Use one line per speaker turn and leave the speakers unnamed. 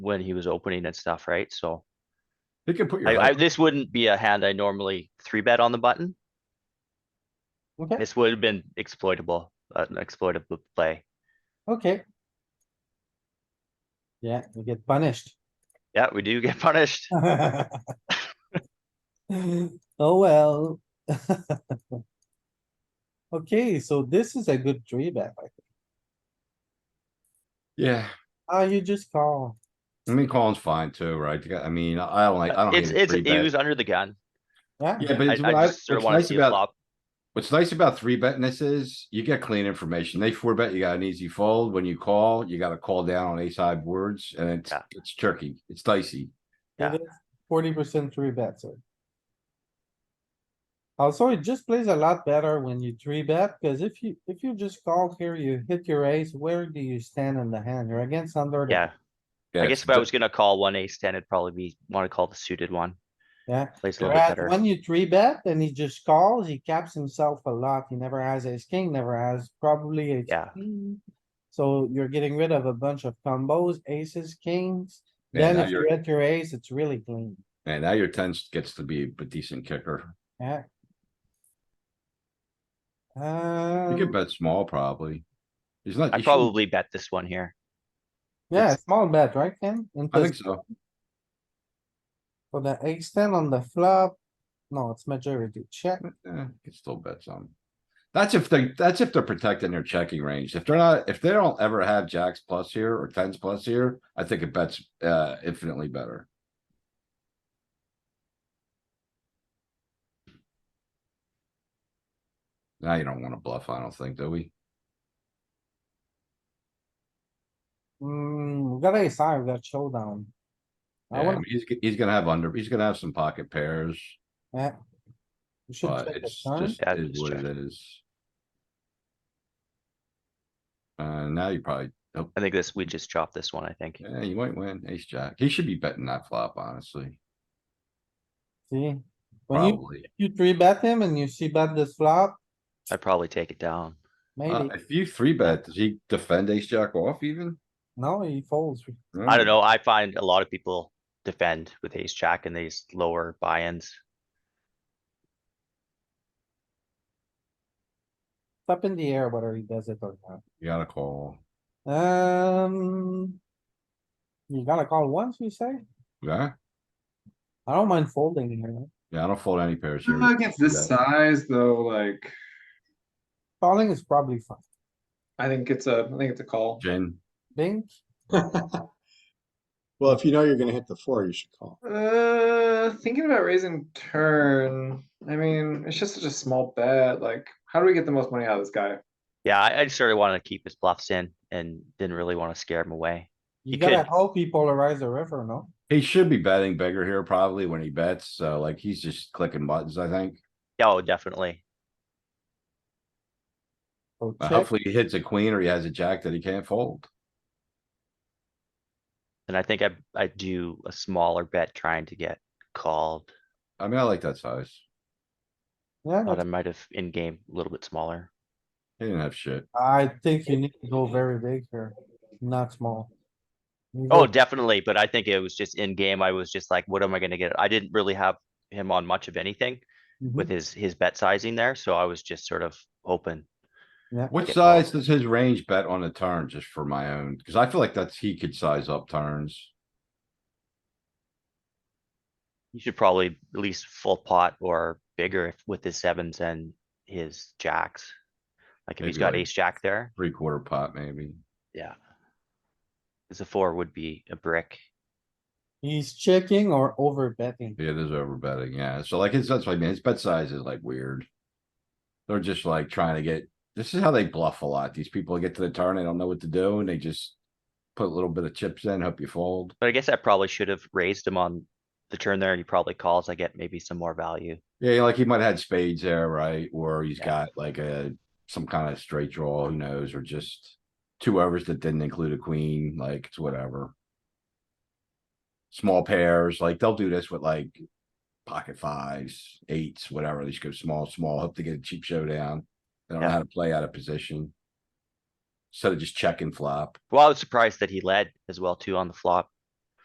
when he was opening and stuff, right? So
He can put your.
I, I,
button.
this wouldn't be a hand I normally three bet on the button.
Okay.
This would have been exploitable, uh, an exploitable play.
Okay. Yeah, we get punished.
Yeah, we do get punished.
Oh, well. Okay, so this is a good three bet. I think.
Yeah,
Ah, you just call.
I mean, calling's fine too, right? You got- I mean, I don't like, I don't.
Uh, It's,
hate a
it's,
three
he
bet.
was under the gun.
Yeah,
Yeah, but
I,
it's what
I
I,
just sort of
what's
wanna
nice
see a
about,
flop.
what's nice about three betting this is you get clean information. They four bet, you got an easy fold. When you call, you gotta call down on ace high boards and it's,
Yeah.
it's tricky. It's dicey.
Yeah.
forty percent three bets here. Also, it just plays a lot better when you three bet, cuz if you, if you just call here, you hit your ace, where do you stand in the hand? You're against under. the-
Yeah,
Yeah,
I
it's
guess if I
di-
was gonna call one ace ten, it'd probably be, wanna call the suited one.
Yeah.
Plays a little bit
Whereas
better.
when you three bet and he just calls, he caps himself a lot. He never has ace king, never has probably a.
Yeah.
So you're getting rid of a bunch of combos, aces, kings.
Yeah,
Then
now
if you
you're,
hit your ace, it's really clean.
and now your tens gets to be a decent kicker.
Yeah.
You
Um,
can bet small probably. He's not,
I
you shouldn't-
probably bet this one here.
yeah, small bet, right, Ken?
I
Into
think so.
for the ace ten on the flop. No, it's majority check.
Eh, you can still bet some. That's if they, that's if they're protecting their checking range. If they're not, if they don't ever have jacks plus here or tens plus here, I think it bets, uh, infinitely better. Now you don't wanna bluff, I don't think, do we?
Hmm, we got ace high, we got showdown.
Yeah,
I
I
wanna,
mean, he's, g- he's gonna have under, he's gonna have some pocket pairs,
yeah. We should
but
check the
it's
turn.
just,
Yeah,
is
just
what it
check.
is. Uh, now you probably, oh,
I think this, we just chop this one, I think.
Yeah, you might win ace jack. He should be betting that flop, honestly,
See, when you,
probably.
you three bet him and you see bet this flop,
I'd probably take it down.
Uh,
maybe,
if you three bet, does he defend ace jack off even?
no, he folds.
I don't know, I find a lot of people defend with ace jack and these lower buy-ins.
It's up in the air whether he does it or not.
You gotta call.
Um. You gotta call once, you say?
Yeah,
I don't mind folding here.
yeah, I don't fold any pairs here.
Uh, Against this
Yeah.
size though, like,
Calling is probably fine.
I think it's a, I think it's a call.
Jin,
Bink,
Well, if you know you're gonna hit the four, you should call.
Uh, thinking about raising turn, I mean, it's just such a small bet, like, how do we get the most money out of this guy?
Yeah, I, I sort of wanted to keep his bluffs in and didn't really wanna scare him away.
you
He
gotta
could.
hope he polarize the river, no?
he should be betting bigger here probably when he bets, so like he's just clicking buttons, I think.
Yeah, Oh, definitely.
So
Uh,
Oh, check,
Hopefully he hits a queen or he has a jack that he can't fold.
And I think I, I do a smaller bet trying to get called,
I mean, I like that size.
yeah,
but I might have in-game a little bit smaller.
He didn't have shit.
I think you need to go very big here, not small. You
Oh,
go-
definitely, but I think it was just in game, I was just like, what am I gonna get? I didn't really have him on much of anything
Mm-hmm.
with his, his bet sizing there, so I was just sort of open.
What
Get
size
called.
does his range bet on a turn just for my own? Cause I feel like that's, he could size up turns.
You should probably at least full pot or bigger if- with his sevens and his jacks. Like if he's
Maybe
got
like-
ace jack there,
three quarter pot maybe.
yeah. Cause the four would be a brick.
He's checking or over betting.
Yeah, there's over betting, yeah. So like, it's, that's what I mean, his bet size is like weird. They're just like trying to get, this is how they bluff a lot. These people get to the turn, they don't know what to do and they just. Put a little bit of chips in, hope you fold.
But I guess I probably should have raised him on the turn there and he probably calls. I get maybe some more value.
Yeah, like he might have had spades there, right? Or he's
Yeah.
got like a, some kind of straight draw, who knows, or just. Two overs that didn't include a queen, like it's whatever. Small pairs, like they'll do this with like. Pocket fives, eights, whatever, they just go small, small, hope to get a cheap showdown. They don't know
Yeah.
how to play out of position. So they just check and flop.
Well, I was surprised that he led as well too on the flop.